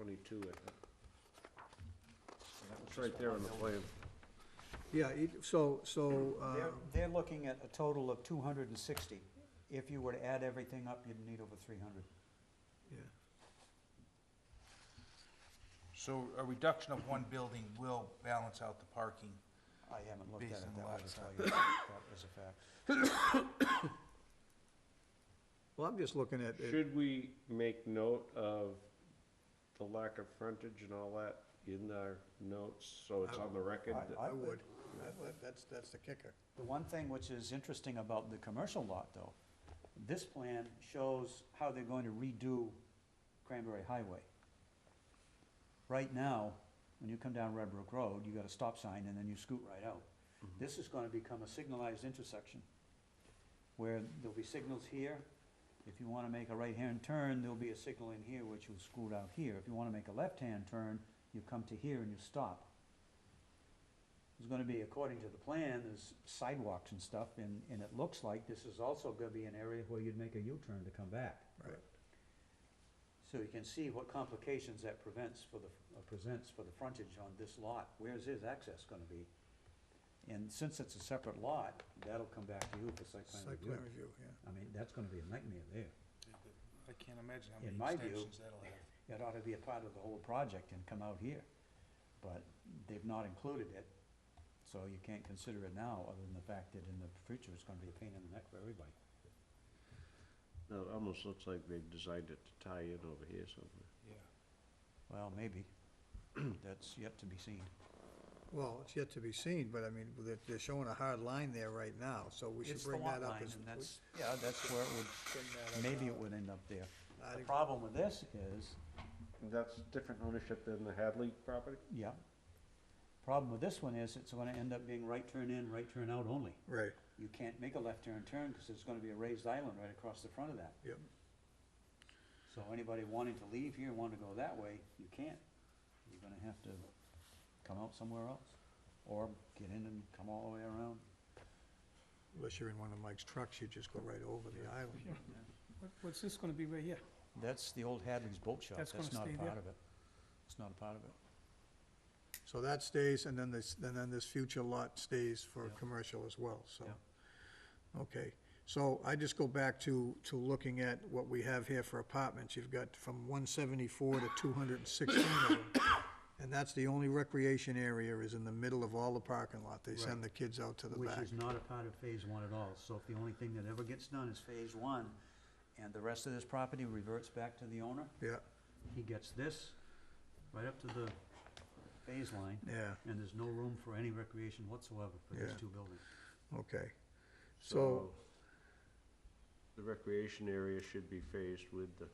twenty-two, I think. It's right there on the plan. Yeah, it- so, so, They're, uh, Um, they're looking at a total of two hundred and sixty. If you were to add everything up, you'd need over three hundred. yeah. So a reduction of one building will balance out the parking. I haven't looked at Based it on the that way, lot to tell size. you that as a fact. Well, I'm just looking at, it. Should we make note of the lack of frontage and all that in our notes, so it's on the record? that- I- I would. That- that- That's, that's the kicker. The one thing which is interesting about the commercial lot, though, this plan shows how they're going to redo Cranberry Highway. Right now, when you come down Red Brook Road, you got a stop sign and then you scoot right out. This is gonna become a signalized intersection, where there'll be signals here. If you wanna make a right-hand turn, there'll be a signal in here which will scoot out here. If you wanna make a left-hand turn, you come to here and you stop is gonna be, according to the plan, there's sidewalks and stuff, and, and it looks like this is also gonna be an area where you'd make a U-turn to come back. Right. So you can see what complications that prevents for the, uh, presents for the frontage on this lot, where's his access gonna be? And since it's a separate lot, that'll come back to you for site plan Site plan review. review, yeah. I mean, that's gonna be a nightmare there. I can't imagine In my how view- many extensions that'll have. It ought to be a part of the whole project and come out here, but they've not included it, so you can't consider it now, other than the fact that in the future, it's gonna be a pain in the neck for everybody. No, it almost looks like they've designed it to tie in over here somewhere. Well, maybe, that's yet to be seen. Well, it's yet to be seen, but I mean, they're, they're showing a hard line there right now, so we should It's the bring lot that up line, as. and we- that's, yeah, that's where it would, bring that up maybe now. it would end up there. I The think- problem with this is, That's different ownership than the Hadley property? yeah, problem with this one is, it's gonna end up being right turn in, right turn out only. Right, You can't make a left turn turn, cause there's gonna be a raised island right across the front of that. yep. So anybody wanting to leave here, wanting to go that way, you can't. You're gonna have to come out somewhere else, or get in and come all the way around. Unless you're in one of Mike's trucks, you just go right over the island. What- What's this gonna be right here? That's the old Hadley's Boat Shop, That's that's gonna not a stay there? part of it. It's not a part of it. So that stays, and then this, and then this future lot stays for Yeah. commercial as well, so. Okay, so I just go back to, to looking at what we have here for apartments. You've got from one seventy-four to two hundred and sixteen of them. And that's the only recreation area is in the middle of all the parking lot. They send the kids out to the Which back. is not a part of phase one at all, so if the only thing that ever gets done is phase one, and the rest of this property reverts back to the owner, Yeah, he gets this right up to the phase line, yeah, and there's no room for any recreation whatsoever for these Yeah. two buildings. okay. So So- the recreation area should be phased with the,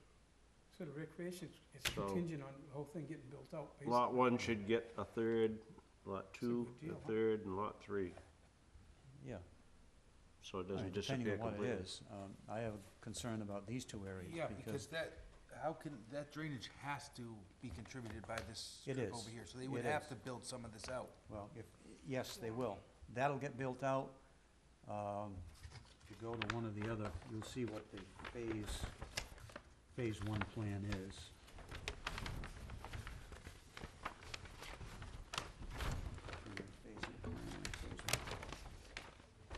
So the recreation is- is So- contingent on the whole thing getting built out, basically. lot one should get a third, lot two, good deal, a huh? third, and lot three, Yeah. so it Right, doesn't disappear Depending on what completely. it is, um, I have a concern about these two areas, Yeah, because because that, how can, that drainage has to be contributed by this It strip is. over here. So they would It have is. to build some of this out. Well, if, yes, they will. That'll get built out. Um, If you go to one of the other, you'll see what the phase, phase one plan is.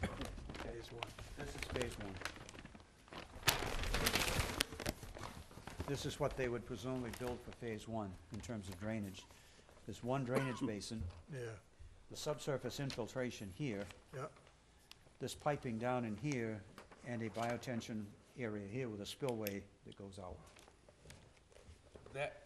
Phase one. This is phase one. This is what they would presumably build for phase one in terms of drainage. There's one drainage basin, Yeah, the subsurface infiltration here, yeah, this piping down in here and a biotension area here with a spillway that goes out. That,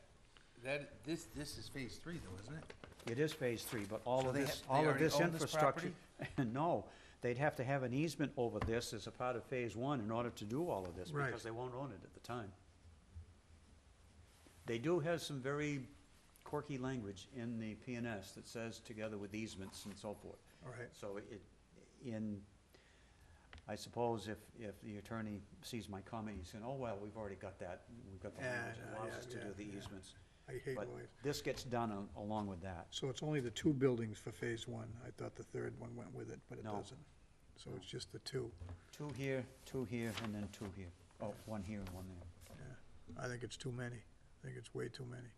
that, this, this is phase three though, isn't it? It is phase three, but all So of they this, ha- they all of already this own this infrastructure. No, they'd have to have an easement over this as a part of phase one in order to do all of this, Right. because they won't own it at the time. They do have some very quirky language in the PNS that says together with easements and so forth. all right. So it, in, I suppose if, if the attorney sees my comment, he's saying, oh, well, we've already got that. We've got the Yeah, language that yeah, allows yeah, us to do yeah, the yeah. easements. I hate But lawyers. this gets done al- along with that. So it's only the two buildings for phase one. I thought the third one went with it, but it No. doesn't. So it's just the two. Two here, two here, and then two here. Oh, one here and one there. Yeah, I think it's too many. I think it's way too many.